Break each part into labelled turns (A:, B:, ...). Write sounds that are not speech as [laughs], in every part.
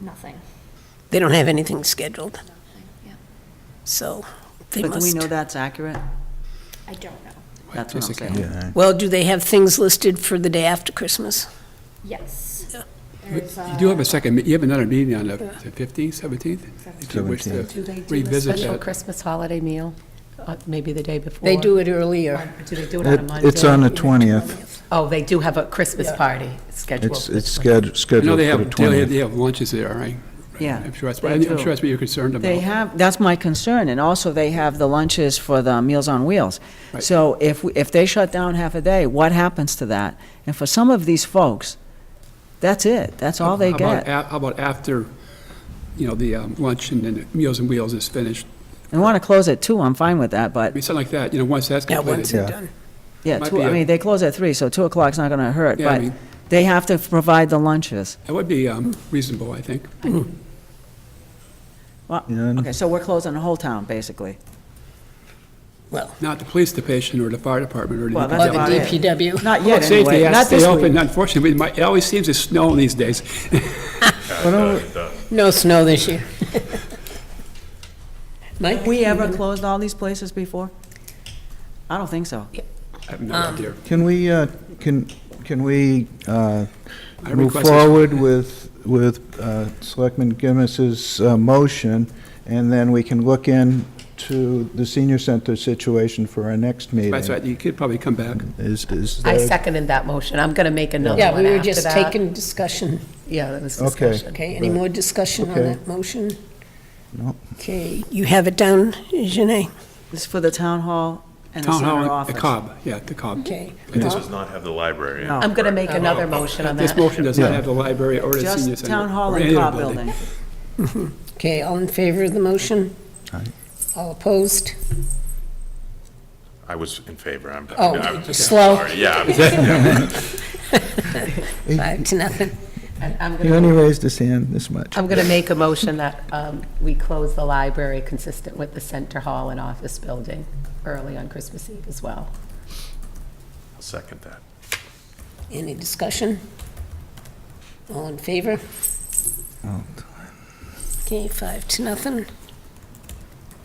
A: Nothing.
B: They don't have anything scheduled,
A: Yeah.
B: so they
C: But do we know
B: must.
C: that's accurate?
A: I don't know.
C: That's what I'm
D: Jessica.
C: saying.
B: Well, do they have things listed for the day after Christmas?
A: Yes.
B: Yeah.
A: There's,
D: You do have
A: uh,
D: a second, me- you have another meeting on the the 15th, 17th? If you wish to
E: Do they do a
D: revisit
E: special
D: that.
E: Christmas holiday meal, uh, maybe the day before?
B: They do it earlier.
E: Do they do it on a uh,
F: It-
E: Monday?
F: It's on the 20th.
E: Oh, they do have a Christmas party scheduled.
F: It's,
E: for
F: it's
E: the 20th.
F: sched-
D: I know
F: scheduled
D: they
F: for the
D: have, they have-
F: 20th.
D: they have lunches there, right?
C: Yeah,
D: I'm sure that's,
C: they
D: what- I'm
C: do.
D: sure that's what you're concerned about.
C: They have, that's my concern, and also they have the lunches for the Meals on Wheels.
D: Right.
C: So if, we- if they shut down half a day, what happens to that? And for some of these folks, that's it, that's all they
D: How about
C: get.
D: a- How about after, you know, the um, lunch and then Meals and Wheels is finished?
C: And want to close at two, I'm fine with that,
D: I
C: but,
D: mean, something like that, you know, once that's
B: Yeah,
D: completed.
B: once they're
F: Yeah.
B: done.
C: yeah,
D: Might
C: two,
D: be
C: I
D: a-
C: mean, they close at three, so two o'clock's not gonna hurt,
D: Yeah, I
C: but
D: mean-
C: they have to provide the lunches.
D: That would be um, reasonable, I think.
C: Well,
F: Yeah.
C: okay, so we're closing the whole town, basically.
D: Not the police station or the fire department or the.
C: Well,
B: Or
C: that's
B: the
C: about it.
B: DPW.
C: Not
D: Public
C: yet,
D: safety
C: anyway,
D: has
C: not
D: to stay
C: this
D: open,
C: week.
D: unfortunately, it might- it always seems to snow these days.
B: No snow this
C: [laughs]
B: year. Mike?
C: Have we ever closed all these places before? I don't think so.
D: I have no
C: Um,
D: idea.
F: Can we, uh, can, can we uh,
D: I
F: move
D: request this-
F: forward with, with uh, Selectman Gimis's uh, motion, and then we can look into the senior center situation for our next meeting?
D: That's right, you could probably come back.
F: Is, is
E: I
F: there-
E: seconded that motion. I'm going to make another
B: Yeah,
E: one
B: we were
E: after
B: just
E: that.
B: taking discussion.
E: Yeah, that was
F: Okay.
E: discussion.
B: Okay, any more discussion on
F: Okay.
B: that motion?
F: No.
B: Okay, you have it down, Janay?
C: It's for the town hall and the
D: Town
C: center
D: hall, the
C: office.
D: Cobb, yeah, the Cobb.
B: Okay.
D: And
G: This
D: this-
G: does not have the library.
C: No.
E: I'm going to make another motion on
D: This
E: that.
D: motion does not
F: Yeah.
D: have the library or the senior
C: Just
D: center.
C: town hall
D: or
C: and
D: any other
C: Cobb building.
B: Okay, all in favor of the motion?
F: Aye.
B: All opposed?
G: I was in favor. I'm.
B: Oh,
G: I'm-
B: you're slow.
G: Sorry, yeah. I'm-
B: Five to nothing.
E: And I'm
F: He
E: going
F: only
E: to,
F: raised his hand this much.
E: I'm going to make a motion that um, we close the library consistent with the center hall and office building early on Christmas Eve as well.
G: I'll Second that.
B: Any discussion? All in favor?
F: Oh,
B: Okay, five to nothing.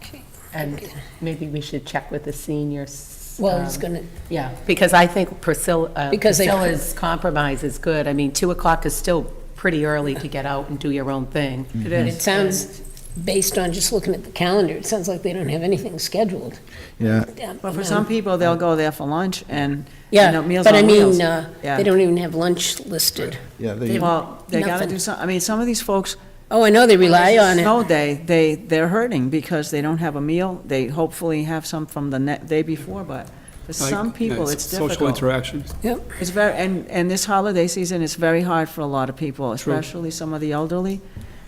B: Okay.
E: And maybe we should check with the seniors.
B: Well, he's
E: um,
B: gonna,
E: Yeah, because I think Priscilla, uh,
B: Because they-
E: Priscilla's compromise is good. I mean, 2 o'clock is still pretty early to get out and do your own thing. It
B: it sounds, based on just looking at the calendar, it sounds like they don't have anything scheduled.
F: Yeah,
B: Um,
C: But for
B: um,
C: some people, they'll go there for lunch and, you
B: Yeah,
C: know, Meals
B: but I
C: on Wheels.
B: mean, uh,
C: Yeah.
B: they don't even have lunch listed.
F: yeah,
B: They-
F: they,
C: Well, they gotta
B: Nothing.
C: do some, I mean, some of these folks,
B: Oh, I know, they rely on it.
C: snow day, they, they're hurting because they don't have a meal. They hopefully have some from the ne- day before, but for
D: Like,
C: some
D: you know,
C: people, it's
D: Social
C: difficult.
D: interaction.
B: Yep,
C: It's very, and, and this holiday season is very hard for a lot of people, especially some of the elderly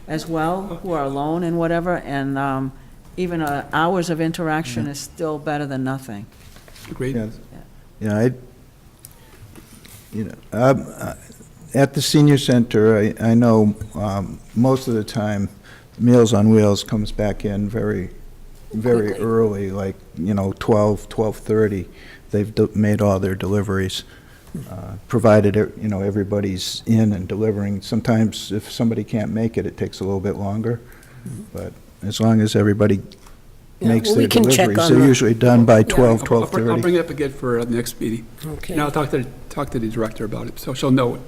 C: as well, who are alone and whatever, and, um, even, uh, hours of interaction is still better than nothing.
D: Agreed.
F: yeah, yeah, I, you know, um, uh, at the senior center, I, I know, um, most of the time, Meals on Wheels comes back in very, very
B: Quickly.
F: early, like, you know, twelve, twelve-thirty. They've de- made all their deliveries, uh, provided, e- you know, everybody's in and delivering. Sometimes if somebody can't make it, it takes a little bit longer, but as long as everybody
B: Yeah,
F: makes
B: well, we
F: their
B: can check
F: deliveries,
B: on
F: they're
B: the-
F: usually done by
D: I'll-
F: twelve,
D: I'll bring- I'll
F: twelve-thirty.
D: bring it up again for uh, the next meeting.
B: okay.
D: And I'll talk to, talk to the director about it, so she'll know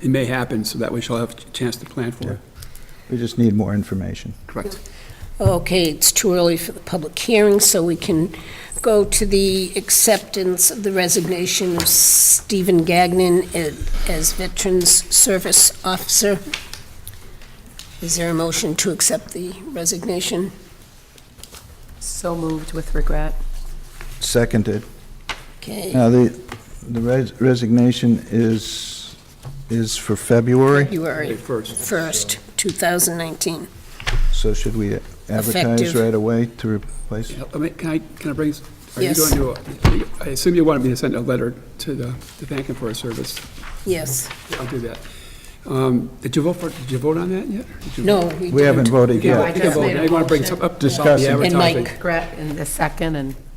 D: it may happen, so that way she'll have a chance to plan for it.
F: We just need more information.
D: Correct.
B: Okay, it's too early for the public hearing, so we can go to the acceptance of the resignation of Stephen Gagnon a- as Veterans Service Officer. Is there a motion to accept the resignation?
E: So moved with regret.
F: Seconded.
B: Okay,
F: Now, the, the res- resignation is, is for February,
B: February
D: First,
B: 1st, 2019.
F: so should we advertise
B: Effective.
F: right away to replace?
D: Yeah, let me- can I, can I bring, s- are you
B: Yes.
D: going to, uh, I assume you wanted me to send a letter to the, to thank him for his service.
B: Yes.
D: I'll do that. Um, Did you vote for, did you vote on that yet? Did you-
B: No, we
F: We haven't
B: didn't.
F: voted
D: You can
F: yet.
D: vote- you can
E: just
D: vote.
E: made a
D: I want to bring some up. about the
F: Discuss it.
B: And
D: advertising.
B: Mike.
E: Regret in the second and